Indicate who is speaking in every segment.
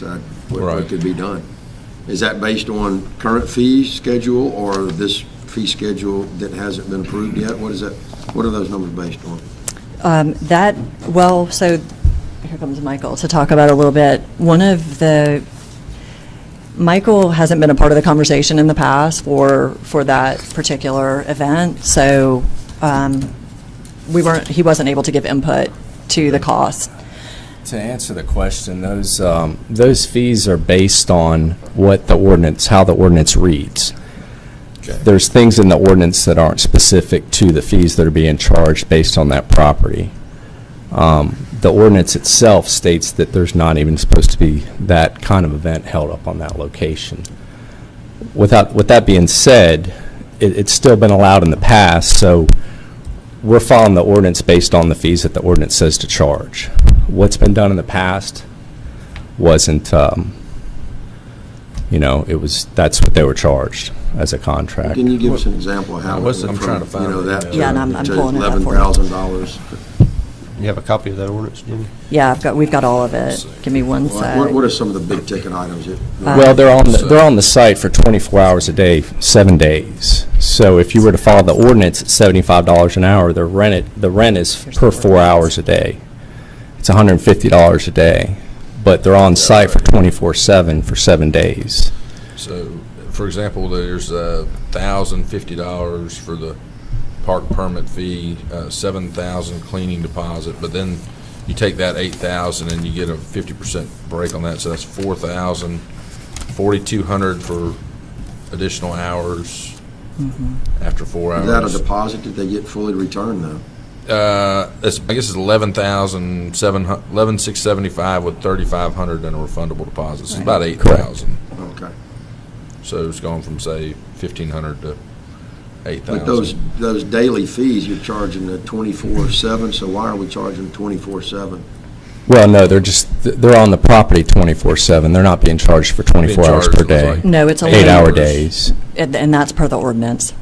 Speaker 1: decide what- what
Speaker 2: Right.
Speaker 1: could be done. Is that based on current fee schedule or this fee schedule that hasn't been approved yet? What is that, what are those numbers based on?
Speaker 3: Um, That, well, so, here comes Michael to talk about a little bit. One of the, Michael hasn't been a part of the conversation in the past for, for that particular event, so um, we weren't, he wasn't able to give input to the cost.
Speaker 4: To answer the question, those, um, those fees are based on what the ordinance, how the ordinance reads.
Speaker 2: Okay.
Speaker 4: There's things in the ordinance that aren't specific to the fees that are being charged based on that property. Um, The ordinance itself states that there's not even supposed to be that kind of event held up on that location. Without, with that being said, it, it's still been allowed in the past, so we're following the ordinance based on the fees that the ordinance says to charge. What's been done in the past wasn't, um, you know, it was, that's what they were charged as a contract.
Speaker 1: Can you give us an example of how? it
Speaker 2: What's the-
Speaker 1: went
Speaker 2: I'm trying to
Speaker 1: from, You
Speaker 2: find
Speaker 1: know,
Speaker 2: it.
Speaker 1: that.
Speaker 3: Yeah, and I'm- I'm pulling it up for you.
Speaker 1: $11,000.
Speaker 5: You have a copy of that ordinance, Jimmy?
Speaker 3: Yeah, I've got, we've got all of it. Give me one sec.
Speaker 1: What what are some of the big ticket items? that-
Speaker 4: Well, they're on, the- they're on the site for 24 hours a day, seven days. So if you were to follow the ordinance, it's $75 an hour. The rent, it- the rent is per four hours a day. It's $150 a day, but they're on site for 24/7 for seven days.
Speaker 2: So, for example, there's a thousand fifty dollars for the park permit fee, uh, seven thousand cleaning deposit, but then you take that eight thousand and you get a fifty percent break on that, so that's four thousand, forty-two hundred for additional hours after four
Speaker 1: Is that a
Speaker 2: hours.
Speaker 1: deposit that they get fully returned though?
Speaker 2: Uh, it's, I guess it's eleven thousand seven hu- eleven six seventy-five with thirty-five hundred and a refundable deposit, so it's about eight thousand.
Speaker 1: Okay.
Speaker 2: So it's gone from, say, fifteen hundred to eight
Speaker 1: But those,
Speaker 2: thousand.
Speaker 1: those daily fees, you're charging the 24/7, so why are we charging 24/7?
Speaker 4: Well, no, they're just, th- they're on the property 24/7. They're not being charged for 24 hours
Speaker 2: charged
Speaker 4: per
Speaker 2: was
Speaker 4: day.
Speaker 2: like
Speaker 3: Um, No, it's only.
Speaker 4: Eight-hour days.
Speaker 3: And and that's per the ordinance.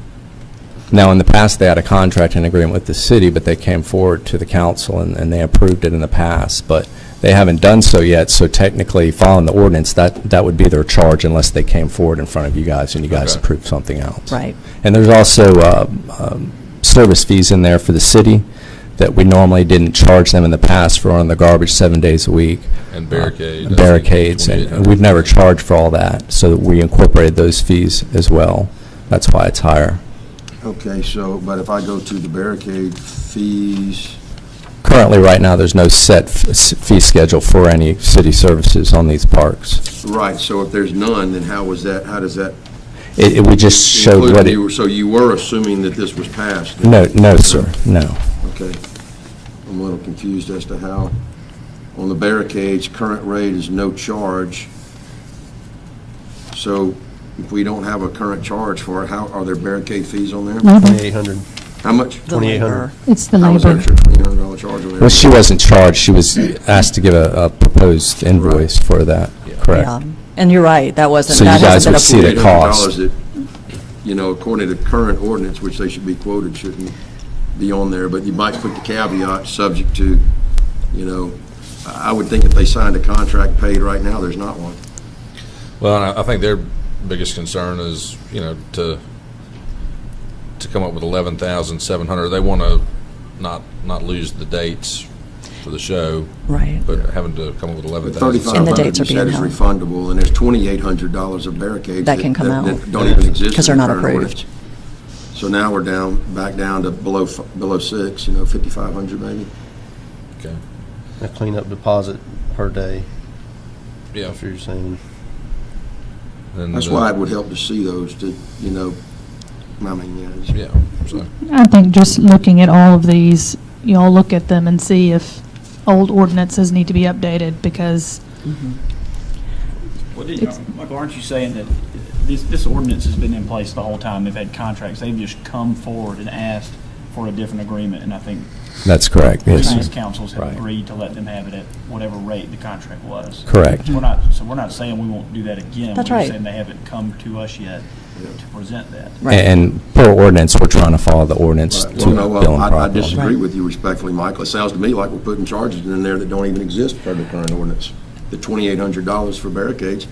Speaker 4: Now, in the past, they had a contract and agreement with the city, but they came forward to the council and, and they approved it in the past, but they haven't done so yet, so technically, following the ordinance, that, that would be their charge unless they came forward in front of you guys and you guys
Speaker 2: Okay.
Speaker 4: approved something else.
Speaker 3: Right.
Speaker 4: And there's also uh, um, service fees in there for the city that we normally didn't charge them in the past for on the garbage seven days a week. Uh,
Speaker 2: And barricade, I think,
Speaker 4: Barricades, and
Speaker 2: 2800.
Speaker 4: we've never charged for all that, so we incorporated those fees as well. That's why it's higher.
Speaker 1: Okay, so, but if I go to the barricade fees,
Speaker 4: Currently, right now, there's no set f- s- fee schedule for any city services on these parks.
Speaker 1: right, so if there's none, then how was that, how does that
Speaker 4: It, it- we just showed
Speaker 1: include,
Speaker 4: what it,
Speaker 1: you- so you were assuming that this was passed?
Speaker 4: no, no, sir, no.
Speaker 1: Okay. I'm a little confused as to how, on the barricades, current rate is no charge. So if we don't have a current charge for it, how, are there barricade fees on there?
Speaker 5: Twenty-eight hundred.
Speaker 1: How much?
Speaker 3: The
Speaker 5: 2800.
Speaker 3: labor.
Speaker 6: It's Mm-hmm. the
Speaker 1: How was
Speaker 6: labor.
Speaker 1: that your $2,800 charge on there?
Speaker 4: Well, she wasn't charged, she was asked to give a, a proposed invoice for that,
Speaker 3: Yeah.
Speaker 4: correct?
Speaker 3: And you're right, that wasn't,
Speaker 4: So you
Speaker 3: that
Speaker 4: guys
Speaker 3: hasn't been
Speaker 4: would see
Speaker 3: approved.
Speaker 4: the cost.
Speaker 1: $800 that, You know, according to current ordinance, which they should be quoted, shouldn't be on there, but you might put the caveat, subject to, you know, I I would think if they signed a contract paid right now, there's not one.
Speaker 2: Well, and I I think their biggest concern is, you know, to, to come up with eleven thousand seven hundred. They want to not, not lose the dates for the show,
Speaker 3: Right.
Speaker 2: but having to come up with eleven thousand.
Speaker 3: And the
Speaker 1: 3,500
Speaker 3: dates are
Speaker 1: you said
Speaker 3: being
Speaker 1: is
Speaker 3: held.
Speaker 1: refundable, and there's $2,800 of barricades.
Speaker 3: That can come out.
Speaker 1: That don't even exist.
Speaker 3: 'Cause
Speaker 1: in
Speaker 3: they're
Speaker 1: the
Speaker 3: not
Speaker 1: current
Speaker 3: approved.
Speaker 1: ordinance. So now we're down, back down to below, f- below six, you know, 5,500 maybe?
Speaker 5: A cleanup deposit per day,
Speaker 2: Yeah.
Speaker 5: if you're saying.
Speaker 2: and,
Speaker 1: That's
Speaker 2: uh,
Speaker 1: why it would help to see those to, you know, I mean, yeah. it's-
Speaker 2: Yeah, so,
Speaker 6: I think just looking at all of these, y'all look at them and see if old ordinances need to be updated because
Speaker 7: Well, did-
Speaker 6: It's-
Speaker 7: Michael, aren't you saying that this, this ordinance has been in place the whole time? They've had contracts. They've just come forward and asked for a different agreement, and I think
Speaker 4: That's correct, yes,
Speaker 7: previous
Speaker 4: sir.
Speaker 7: councils have
Speaker 4: Right.
Speaker 7: agreed to let them have it at whatever rate the contract was.
Speaker 4: correct.
Speaker 7: We're not, so we're not saying we won't do that again.
Speaker 3: That's
Speaker 7: We're
Speaker 3: right.
Speaker 7: just saying they haven't come to us yet to present that.
Speaker 4: A- And per ordinance, we're trying to follow the ordinance to
Speaker 1: Well, no,
Speaker 4: bill
Speaker 1: well,
Speaker 4: and
Speaker 1: I I
Speaker 4: properly.
Speaker 1: disagree with you respectfully, Michael. It sounds to me like we're putting charges in there that don't even exist per the current ordinance. the $2,800 for barricades,